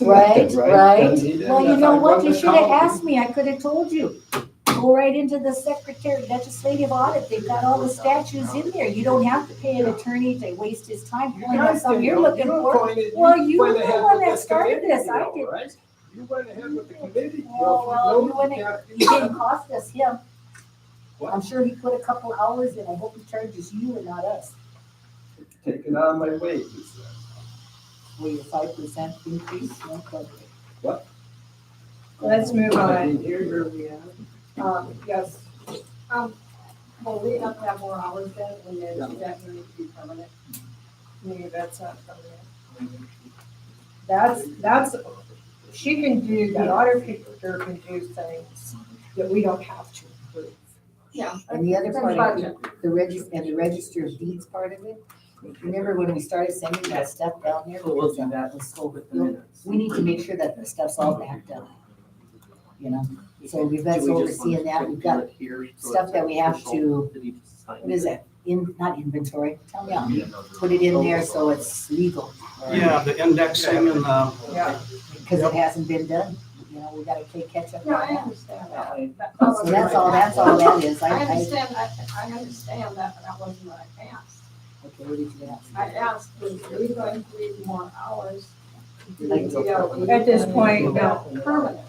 Right, right. Well, you know what? You should have asked. asked me. I could have told you. Go right into the secretary legislative audit. They've got all the statutes in there. You don't have to pay an attorney to waste his time pulling out something you're looking for. Well, you were the one that started this. I didn't. You went ahead with the committee. Well, well, you went ahead. You didn't cost us him. What? I'm sure he put a couple hours in. I hope he charges you and not us. Taken out of my wages. Will your five percent increase? No, but, Let's move I on. mean, here you're- Um, yes. Um, well, we have to have more hours then, and then that would need to be permanent. Maybe that's not permanent. That's, that's, she can do, that audit director can do things that we don't have to approve. yeah. And the other part of it, the regis, and the register of deeds part of it. Remember when we started sending that stuff down here? We'll do that, let's go with the minutes. We need to make sure that the stuff's all backed up. You know, so we've got Do we just overseeing want that, to we've got do it here so stuff it's that we have official to, that he just signed? what is that? In, not inventory, tell me, I'll put it in there so it's legal. Yeah, the indexing and uh, the, Yeah. Because it hasn't been done, you know, we gotta play catch up. No, I on that. understand that. So that's all, that's all that is, I, I I, okay, understand, I, I understand that, but that wasn't what I asked. what did you ask? I asked, are we going to need more hours? Like- At this point, no. Permanent.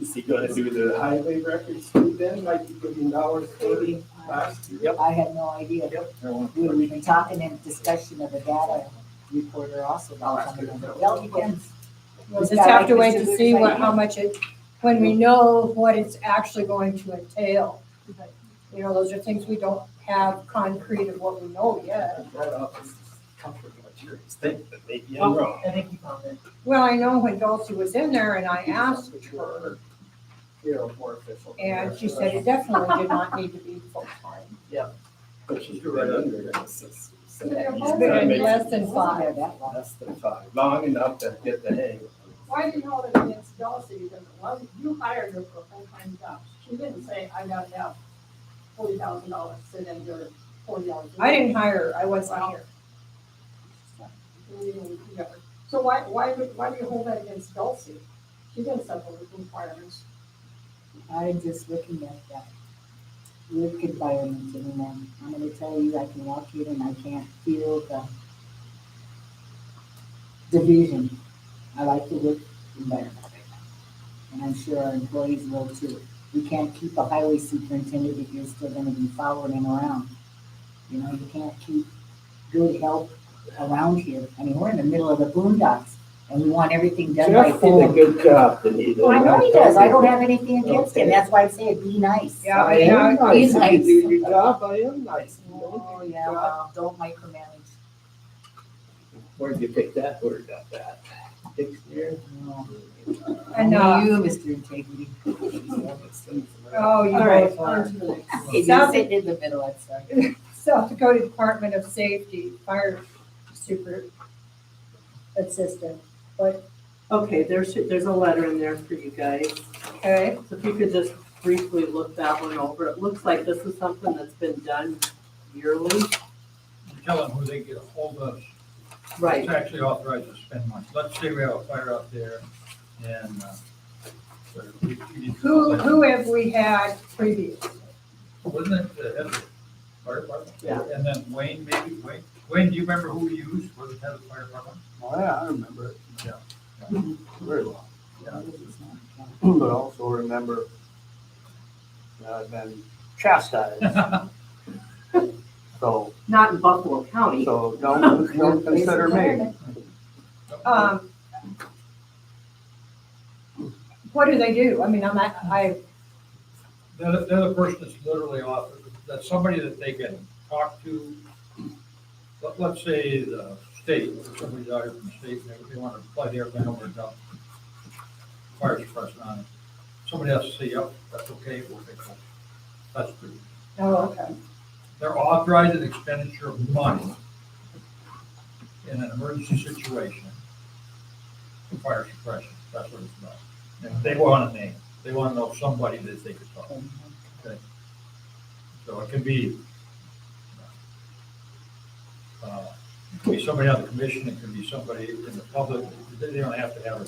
Is he gonna do the highway records too then, like you put in dollars thirty last year? I had no idea, we were even talking in discussion of a data reporter also about something. Well, you can, We'll just have to wait to see what, how much it, when we know what it's actually going to entail. But, You know, those are things we don't have concrete of what we know yet. That office is comfortable, it's yours, think, but maybe I'm wrong. I think he found it. Well, I know when Dulcie was in there and I asked her, You're a more official. and she said it definitely did not need to be full-time. But she's right under it. So- so They're he's both gonna make less it than five. Wasn't there that long? Less than five, long enough to get the hang. Why do you hold it against Dulcie? Because it wasn't, you hired her for a full-time job. She didn't say, I gotta have forty thousand dollars, sit in your forty dollars. I didn't hire her, I wasn't here. So why, why, would- why do you hold that against Dulcie? She didn't set those requirements. I'm just looking at that work environment and then I'm gonna tell you, I can walk in and I can't feel the division. I like the work environment. And I'm sure our employees will too. We can't keep a highway superintendent if you're still gonna be following him around. You know, you can't keep good help around here. I mean, we're in the middle of the boondocks and we want everything done by Jeff did a phone. good job, Anita. Well, Oh, I know he does. I don't have anything against him. That's why I say it, be nice. Yeah, I am know. nice. He's You nice. do your job, I am nice. You Oh, don't do your yeah, job. well, don't micromanage. Where'd you pick that word up at? Dictionary? No. Enough. Only you, Mr. Integrity. Oh, you both were. Hey, You're South- sitting in the middle, I'm sorry. South Dakota Department of Safety Fire Super Assistant, but, Okay, there's, there's a letter in there for you guys. okay, So if you could just briefly look that one over, it looks like this is something that's been done yearly. Tell them who they get a hold of. It's actually authorized to spend money. Let's say we have a fire out there and, uh, we're- we- we- who, who have we had previous? Wasn't it the head of the fire department? Yeah. And then Wayne, maybe, Wayne, Wayne, do you remember who we used? Was it head of the fire department? Oh, yeah, I remember it. Yeah. Very well. Yeah. But also remember that I've been chastised, so, Not in Buffalo County. so don't, don't consider me. Um, what do they do? I mean, I'm, not- I, They're, the- they're the person that's literally off, that's somebody that they can talk to. Let, let's say the state, somebody's out here from the state, and they- they want to fly the airplane over and dump fire suppression on it. Somebody has to say, yep, that's okay, we'll fix it. That's pretty. oh, okay. They're authorized an expenditure of money in an emergency situation for fire suppression. That's what it's about. And They want a name. They want to know somebody that they could talk to. So it can be uh, It could be somebody on the commission, it could be somebody in the public, they don't have to have a